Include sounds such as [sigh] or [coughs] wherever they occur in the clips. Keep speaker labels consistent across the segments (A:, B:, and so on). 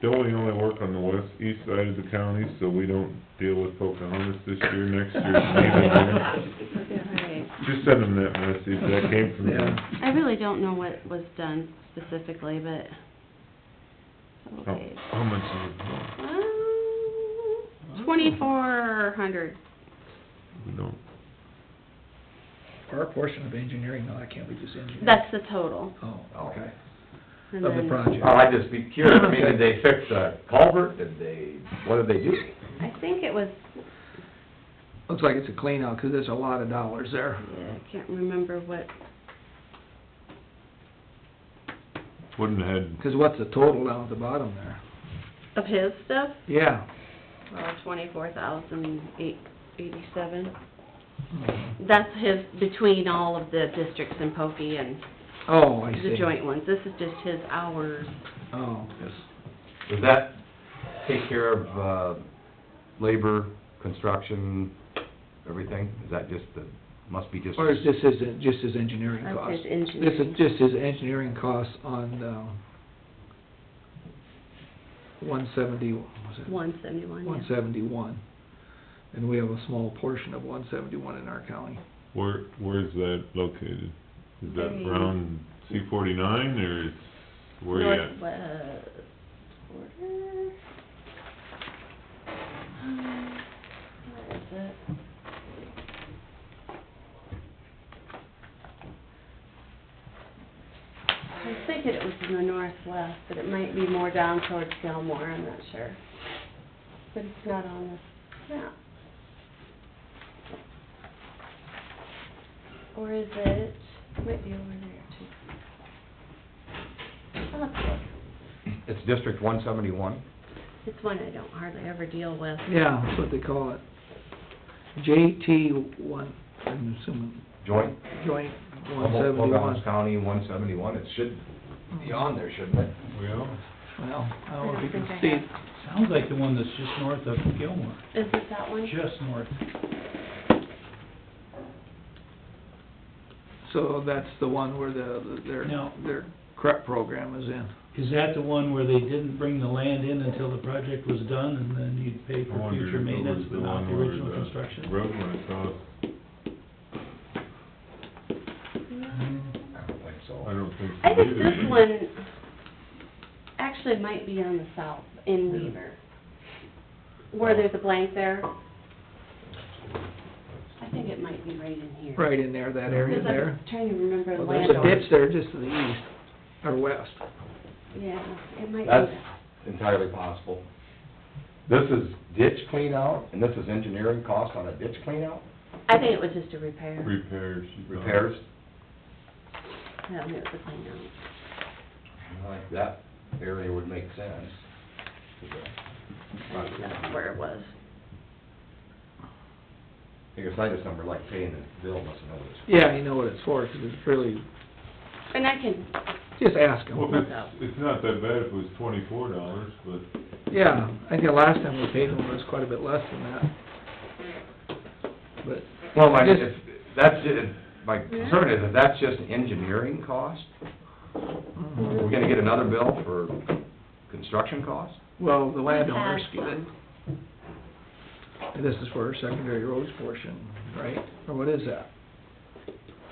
A: Don't we only work on the west, east side of the county, so we don't deal with Pocahontas this year, next year,
B: [laughs]
A: neither one?
B: Right.
A: Just send them that message, that came from them.
C: Yeah.
B: I really don't know what was done specifically, but,
C: Oh.
A: How
B: okay. Um,
A: how much is it? Oh,
B: Twenty-four hundred.
A: We don't,
C: Our portion of engineering, no, that can't be just engineering.
B: That's the total.
C: Oh, okay,
B: And
C: of the
B: then-
C: project.
D: Well, I'd just be curious, Oh, I mean,
A: [laughs]
D: did they fix a culvert, did they, what did they do?
B: I think it was,
C: Looks like it's a clean out, 'cause there's a lot of dollars there.
B: I can't remember what,
A: wouldn't had,
C: 'Cause what's the total down at the bottom there?
B: of his stuff,
C: Yeah.
B: well, twenty-four thousand eight, eighty-seven.
C: Mm-hmm.
B: That's his, between all of the districts in Pokie and
C: Oh, I see.
B: the joint ones. This is just his hours.
C: Oh,
D: Does that take care of, uh, labor, construction, everything? Is that just the, must be just...
C: or is this his, just his engineering
B: That's
C: cost?
B: his engineering.
C: This is just his engineering cost on, um, one seventy, was it?
B: One seventy-one,
C: One seventy-one. And we have a small portion of one seventy-one in our county.
A: where, where's that located? Is that
B: Very-
A: around C forty-nine, or is, where you at?
B: Northwest border. Um, Where is it? I was thinking it was in the northwest, but it might be more down towards Gilmore, I'm not sure. But it's not on this map. Or is it, might be over there too. I'll have to look.
D: It's District one seventy-one?
B: It's one I don't hardly ever deal with.
C: Yeah, that's what they call it. JT one, I'm assuming.
D: Joint?
C: Joint one
D: Humboldt,
C: seventy-one.
D: Pocahontas County, one seventy-one, it should be on there, shouldn't it?
A: Well,
C: Well, I don't know if you
B: I
C: can
B: don't
C: see.
B: think I
E: Sounds like the one that's just north of Gilmore,
B: Is it that one?
E: just north.
C: So that's the one where the, their,
E: No.
C: their CREP program is in.
E: Is that the one where they didn't bring the land in until the project was done, and then you'd pay
A: I
E: for
A: wonder if
E: future
A: it
E: maintenance,
A: was
E: but
A: the
E: not
A: one
E: the
A: where
E: original
A: the
E: construction?
A: Road went across,
D: I don't think so.
A: I don't think.
B: I
A: so
B: think
A: either.
B: this one actually might be on the south, in Weaver. Where there's a blank there. I think it might be right in here.
C: Right in there, that area
B: Because
C: there.
B: I'm trying to remember the
C: Well, there's
B: land.
C: a ditch there just to the east, or west.
B: Yeah, it might be
D: That's
B: that.
D: entirely possible. This is ditch clean out, and this is engineering cost on a ditch clean out,
B: I think it was just a repair.
A: Repairs. you know.
D: repairs,
B: No, it was a clean out.
D: like that area would make sense.
B: I think that's where it was.
D: I think it's item number, like paying the bill, must know this.
C: Yeah, you know what it's for, 'cause it's really,
B: And I can,
C: just ask
A: Well,
C: them.
A: it's, it's not that bad if it was twenty-four dollars, but
C: Yeah, I think the last time we paid them was quite a bit less than that. But
D: Well, my,
C: Just-
D: if, that's, ju- my concern is, if that's just engineering cost,
C: Mhm.
D: are we gonna get another bill for construction cost?
C: Well, the landowners
B: Pass
C: get it.
B: them.
C: And this is for our secondary roads portion, right? Or what is that?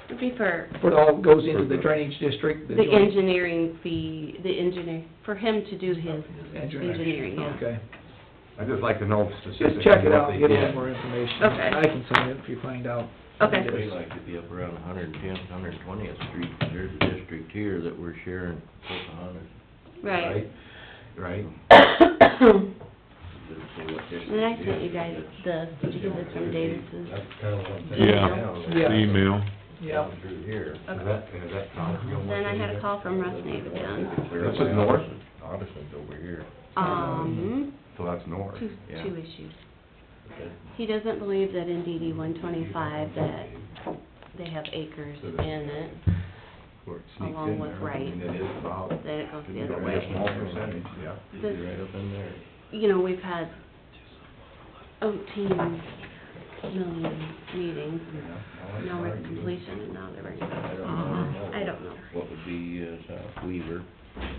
B: it'd be for
C: What all goes into the drainage district?
B: the
C: joint-
B: engineering fee, the engineer, for him to do his
C: Engineering.
B: engineering, yeah.
C: Okay.
D: I'd just like to know
C: Just
D: specifically
C: check it out,
D: what
C: and
D: they
C: get a little
D: did.
C: more information.
B: Okay.
C: I can sign it if you find out. what it
B: Okay.
F: They
C: is.
F: like to be up around 110th, 120th Street, and there's a district here that we're sharing Pocahontas.
B: Right.
D: Right?
B: [coughs] And
F: Doesn't say what district
B: I
F: it
B: sent
F: is,
B: you
F: but
B: guys
F: it's-
B: the, did you get this from Davis's?
D: That's kinda what I'm thinking
A: Yeah.
D: now, is
C: Yeah.
A: email.
C: Yeah,
D: Through here. Is
B: Okay.
D: that, is that Thompson?
B: Then I had a call from Russ Nave again,
D: This is north? Addison's over here.
B: um,
D: So that's north.
B: two,
F: Yeah.
B: two issues. He doesn't believe that in DD one twenty-five that they have acres in it,
D: Where it sneaks
B: Along
D: in
B: with
D: there,
B: right.
D: And it is about,
B: that it goes the other
D: only a small
B: way.
D: percentage, yeah.
F: It'd be
B: This,
F: right up in there.
B: you know, we've had eighteen million meetings, and now we're at completion, and now they're bringing
F: Uh-huh. I
B: it up.
F: don't know
B: I don't know.
F: what would be uh, South Weaver,